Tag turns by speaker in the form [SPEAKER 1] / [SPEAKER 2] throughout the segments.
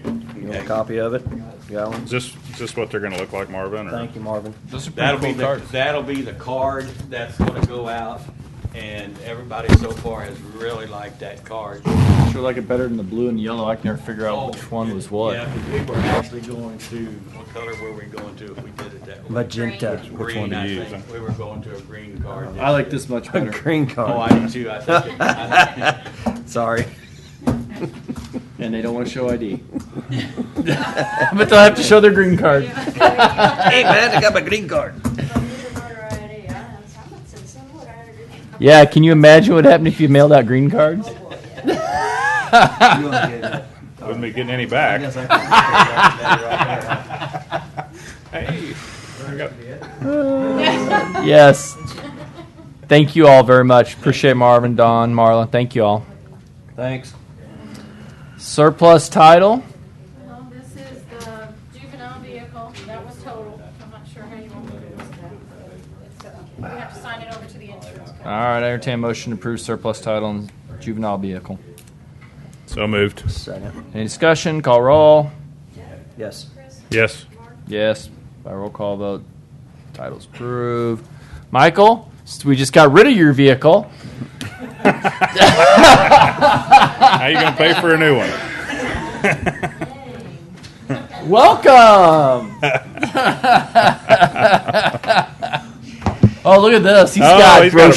[SPEAKER 1] You want a copy of it? You Got one?
[SPEAKER 2] Is this, is this what they're gonna look like, Marvin, or?
[SPEAKER 1] Thank you, Marvin.
[SPEAKER 3] Those are pretty
[SPEAKER 4] That'll be
[SPEAKER 3] cool
[SPEAKER 4] the,
[SPEAKER 3] cards.
[SPEAKER 4] that'll be the card that's gonna go out, and everybody so far has really liked that card.
[SPEAKER 3] Sure like it better than the blue and yellow. I can never figure
[SPEAKER 4] Oh,
[SPEAKER 3] out which one was what.
[SPEAKER 4] Yeah, 'cause we were actually going to, what color were we going to if we did it that way?
[SPEAKER 1] Magenta.
[SPEAKER 2] Which one
[SPEAKER 4] Green,
[SPEAKER 2] to
[SPEAKER 4] I
[SPEAKER 2] use,
[SPEAKER 4] think. We were going to a green card.
[SPEAKER 3] I like this much
[SPEAKER 1] A
[SPEAKER 3] better.
[SPEAKER 1] green
[SPEAKER 4] Oh, I
[SPEAKER 1] card.
[SPEAKER 4] do too, I think. it- I think
[SPEAKER 1] Sorry.
[SPEAKER 3] And they don't want to show ID. but they'll have to show their green card.
[SPEAKER 1] Hey, man, I got my green card.
[SPEAKER 3] Yeah, can you imagine what happened if you mailed out green cards?
[SPEAKER 2] Wouldn't be getting any back. Hey, I got-
[SPEAKER 3] Yes. Thank you all very much. Appreciate Marvin, Don, Marla. Thank you all.
[SPEAKER 1] Thanks.
[SPEAKER 3] Surplus title.
[SPEAKER 5] Well, Um, this is the juvenile vehicle, that was total, I'm not sure how you want to do this. We have to sign it over to the insurance company.
[SPEAKER 3] All right, I entertain a motion to approve surplus title and juvenile vehicle.
[SPEAKER 2] So moved.
[SPEAKER 1] Second.
[SPEAKER 3] Any discussion? Call roll.
[SPEAKER 1] Yes.
[SPEAKER 2] Yes.
[SPEAKER 3] Yes. By roll call vote, title's approved. Michael, s- we just got rid of your vehicle.
[SPEAKER 2] How you gonna pay for a new one?
[SPEAKER 3] Welcome. oh, look at this. He's
[SPEAKER 2] Oh,
[SPEAKER 3] got
[SPEAKER 2] he's got a brand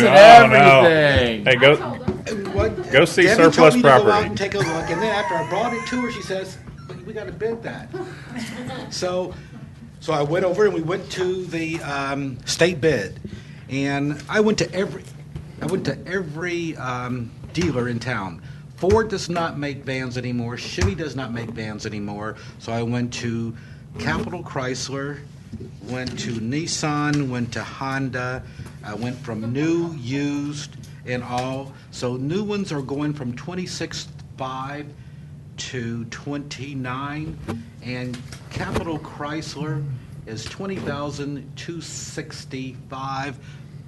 [SPEAKER 3] brochures
[SPEAKER 2] new.
[SPEAKER 3] and
[SPEAKER 2] Oh, no.
[SPEAKER 3] everything.
[SPEAKER 2] Hey,
[SPEAKER 5] I
[SPEAKER 2] go,
[SPEAKER 5] told them.
[SPEAKER 6] What?
[SPEAKER 2] go see
[SPEAKER 6] Debbie told
[SPEAKER 2] surplus
[SPEAKER 6] me to go out and
[SPEAKER 2] property.
[SPEAKER 6] take a look, and then after I brought it to her, she says, "But we gotta bid that." So, so I went over and we went to the um, state bid, and I went to every, I went to every um, dealer in town. Ford does not make vans anymore. Chevy does not make vans anymore. So I went to Capital Chrysler, went to Nissan, went to Honda. I went from new, used, and all. So new ones are going from twenty six five to 29, and Capital Chrysler is 20,265,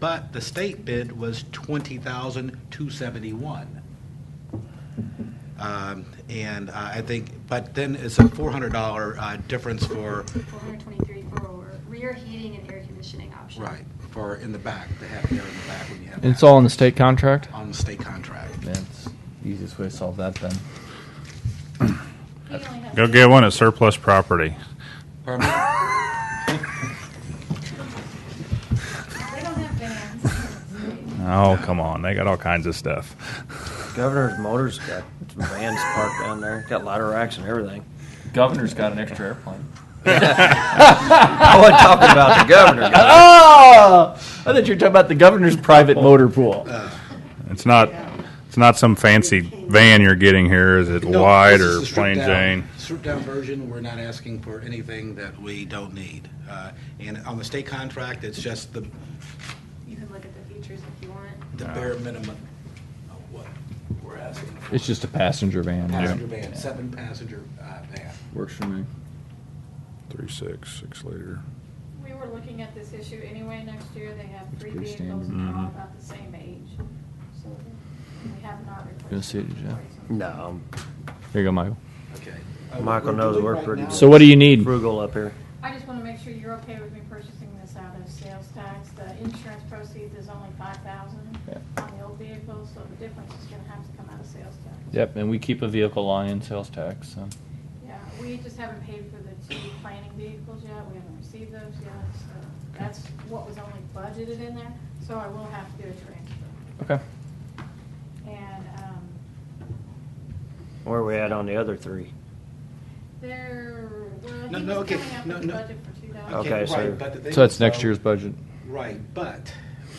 [SPEAKER 6] but the state bid was 20,271. Um, And uh, I think, but then it's a $400 uh, difference for,
[SPEAKER 7] 423 for rear heating and air conditioning option.
[SPEAKER 6] right, for in the back, to have air in the back when you have.
[SPEAKER 3] It's
[SPEAKER 6] that
[SPEAKER 3] all in the state contract.
[SPEAKER 6] On the state contract.
[SPEAKER 3] That's the easiest way to solve that then.
[SPEAKER 5] He only has-
[SPEAKER 2] Go get one at surplus property.
[SPEAKER 6] Pardon me?
[SPEAKER 5] They don't have vans.
[SPEAKER 2] Oh, come on, they got all kinds of stuff.
[SPEAKER 1] Governor's Motors got some vans parked down there. Got ladder racks and everything.
[SPEAKER 3] Governor's got an extra airplane.
[SPEAKER 1] I wasn't talking about the governor. guys.
[SPEAKER 3] Oh! I thought you were talking about the governor's private motor pool.
[SPEAKER 2] It's not, it's not some fancy van you're getting here, is it
[SPEAKER 6] No,
[SPEAKER 2] wide
[SPEAKER 6] this is
[SPEAKER 2] or
[SPEAKER 6] the stripped
[SPEAKER 2] plain
[SPEAKER 6] down-
[SPEAKER 2] Jane?
[SPEAKER 6] Stripped down version, we're not asking for anything that we don't need. Uh, And on the state contract, it's just the,
[SPEAKER 7] You can look at the features if you want.
[SPEAKER 6] the bare minimum of what we're asking. for.
[SPEAKER 3] It's just a passenger van.
[SPEAKER 6] Passenger van, seven passenger uh, van.
[SPEAKER 3] Works for me.
[SPEAKER 2] Three, six, six liter.
[SPEAKER 5] We were looking at this issue anyway, next year they have three
[SPEAKER 3] pretty
[SPEAKER 5] vehicles
[SPEAKER 3] standard.
[SPEAKER 5] and they're all about the same age. So we have not replaced.
[SPEAKER 3] Gonna see it, Jeff.
[SPEAKER 1] No,
[SPEAKER 3] Here you go, Michael.
[SPEAKER 6] Okay. Uh,
[SPEAKER 1] I'm- Michael knows we're pretty
[SPEAKER 3] So what do you need?
[SPEAKER 1] frugal up here.
[SPEAKER 5] I just wanna make sure you're okay with me purchasing this out of sales tax, the insurance proceeds is only five thousand on the old vehicle, so the difference is gonna have to come out of sales tax.
[SPEAKER 3] Yep, and we keep a vehicle line in sales tax, so.
[SPEAKER 5] Yeah, we just haven't paid for the two planning vehicles yet, we haven't received those yet, so that's what was only budgeted in there, so I will have to do a transfer.
[SPEAKER 3] Okay.
[SPEAKER 5] And, um,
[SPEAKER 1] Where we at on the other three?
[SPEAKER 5] there, well,
[SPEAKER 6] No,
[SPEAKER 5] he
[SPEAKER 6] no,
[SPEAKER 5] was
[SPEAKER 6] okay,
[SPEAKER 5] coming up
[SPEAKER 6] no,
[SPEAKER 5] with a
[SPEAKER 6] no.
[SPEAKER 5] budget for two dollars.
[SPEAKER 1] Okay, so-
[SPEAKER 6] right, but the thing
[SPEAKER 3] So that's
[SPEAKER 6] is,
[SPEAKER 3] next
[SPEAKER 6] though-
[SPEAKER 3] year's budget.
[SPEAKER 6] Right, but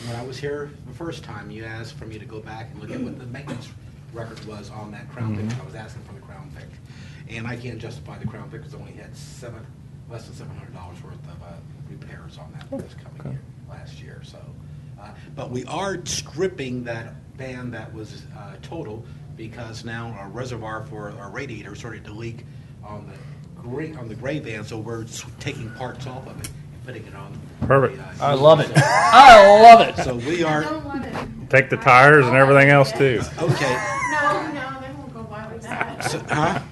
[SPEAKER 6] when I was here the first time, you asked for me to go back and look at what the maintenance record was on that Crown Vic. I was asking for the Crown Vic. And I can't justify the Crown Vic because it only had seven, less than seven hundred dollars worth of uh, repairs on that this coming year, last year, so. uh, But we are stripping that van that was uh, total because now our reservoir for our radiator started to leak on the gray, on the gray van, so we're s- taking parts off of it and putting it on. the,
[SPEAKER 2] Perfect.
[SPEAKER 6] uh,
[SPEAKER 3] I love it. I love it.
[SPEAKER 6] so we
[SPEAKER 5] I
[SPEAKER 6] are,
[SPEAKER 5] don't want it, no,
[SPEAKER 2] Take the tires and everything else too.
[SPEAKER 6] okay,
[SPEAKER 5] no, they won't go by with that.
[SPEAKER 6] so, huh?